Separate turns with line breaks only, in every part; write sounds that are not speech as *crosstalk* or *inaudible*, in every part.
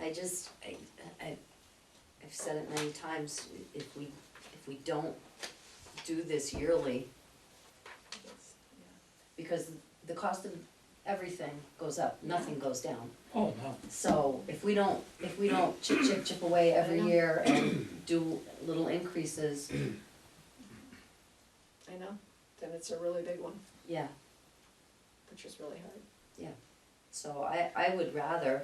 I just, I, I, I've said it many times, if we, if we don't do this yearly,
It's-
because the cost of everything goes up, nothing goes down.
Oh, no.
So if we don't, if we don't chip, chip, chip away every
I know.
year and do little increases,
I know, then it's a really big one,
yeah.
which is really hard.
So I, I would rather,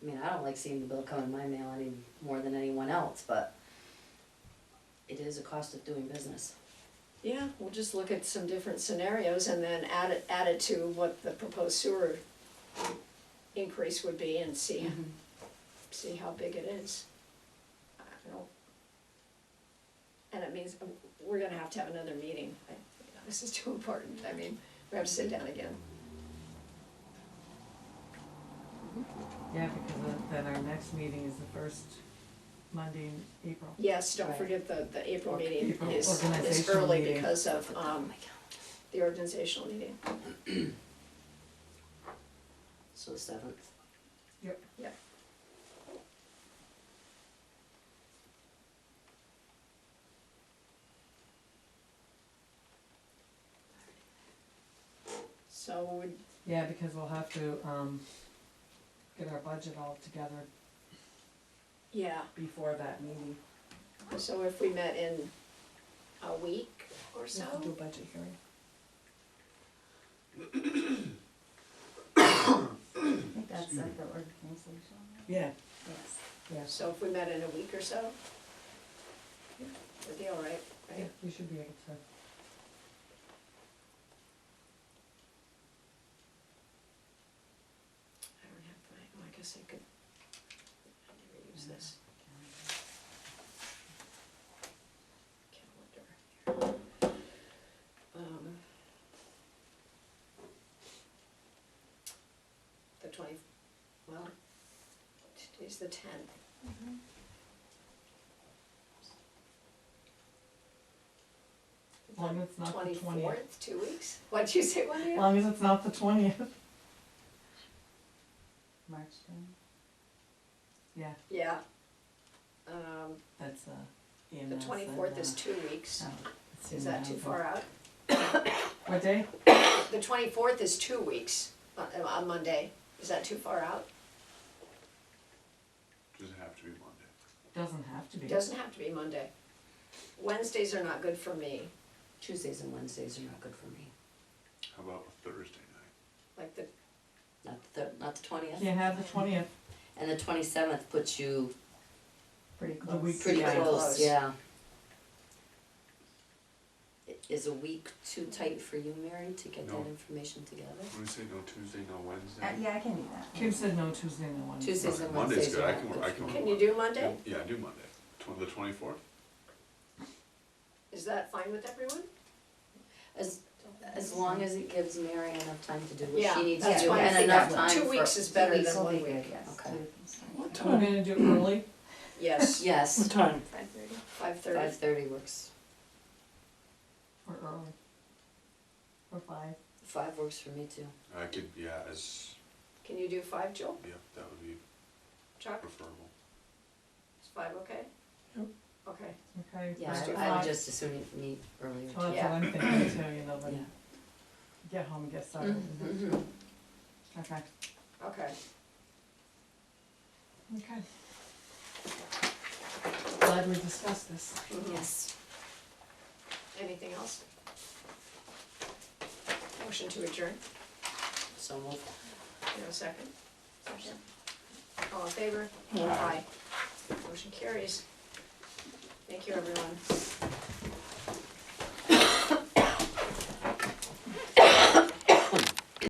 I mean, I don't like seeing the bill come in my mail any more than anyone else, but it is a cost of doing business.
Yeah, we'll just look at some different scenarios and then add it, add it to what the proposed sewer increase would be and see, see how big it is. I don't know. And it means, um, we're gonna have to have another meeting, I, this is too important, I mean, we have to sit down again.
Yeah, because of- then our next meeting is the first Monday in April.
Yes, don't
Right.
forget the, the April
Or-
meeting
April
is, is
organizational
early
meeting.
because of,
Oh
um,
my God.
the organizational meeting.
So the seventh.
So would,
Yeah, because we'll have to, um, get our budget all together
yeah,
before that meeting.
So if we met in a week or
We have to do a
so,
budget hearing.
I think that's like the organization,
Yeah,
yes.
yes,
so if we met in a week or so, we'd be all right,
yeah,
right?
we should be able to.
I don't have my, oh, I guess I could, I never use this. Calendar here. Um. The twenty, well, today's the tenth.
As long as it's not the twentieth.
Twenty-fourth, two weeks? What'd you say, one
As
year?
long as it's not the twentieth.
March then,
Yeah,
Yeah. Um,
that's, uh, EMS.
the
and,
twenty-fourth is
uh,
two weeks.
oh, it's
Is that
EMS,
too
but-
far out?
What day?
The twenty-fourth is two weeks, on, on Monday. Is that too far out?
Does it have to be Monday?
Doesn't have to be.
It doesn't have to be Monday. Wednesdays are not good for me,
Tuesdays and Wednesdays are not good for me.
How about a Thursday night?
like the,
Not the, thir- not the twentieth.
Can't have the twentieth,
And the twenty-seventh puts you
pretty
The
close.
week
pretty
Yeah.
close,
Close.
yeah. I- Is a week too tight for you, Mary, to get that
No.
information together?
When we say no Tuesday, no
Uh,
Wednesday?
yeah, I can do that.
Kim said no Tuesday and the Wednesday.
Tuesdays and
Monday's
Wednesdays
good,
are
I
not
can,
good
I
for
can.
can you do Monday?
Yeah, I do Monday, Tw- the twenty-fourth?
Is that fine with everyone?
As, as long as it gives Mary enough time to do what
Yeah,
she needs to
that's
do
why I
and
think
enough
that
time
two
for-
weeks is
Two
better
weeks
than
will
one
be
week.
good, Yes,
Okay.
two weeks.
What
We're
time?
gonna do it early.
*laughs* Yes,
Yes,
time?
Five thirty.
five thirty.
five thirty works,
Or early. Or five.
five works for me too.
I could, yeah, as,
Can you do five, Joel?
yeah, that would be
Chuck,
preferable.
is five okay?
Yep.
Okay.
Okay.
Yeah,
let's
I-
do
I
five.
would just as soon meet earlier
Well,
too,
that's what I'm thinking too, you know, but
yeah.
get home and get started. and-
Mhm.
Okay,
Okay.
okay. Glad we discussed this.
Mm-hmm.
Yes.
Anything else? Motion to adjourn,
So we'll
you know, second? Second. All in favor? Motion carries. Thank you, everyone.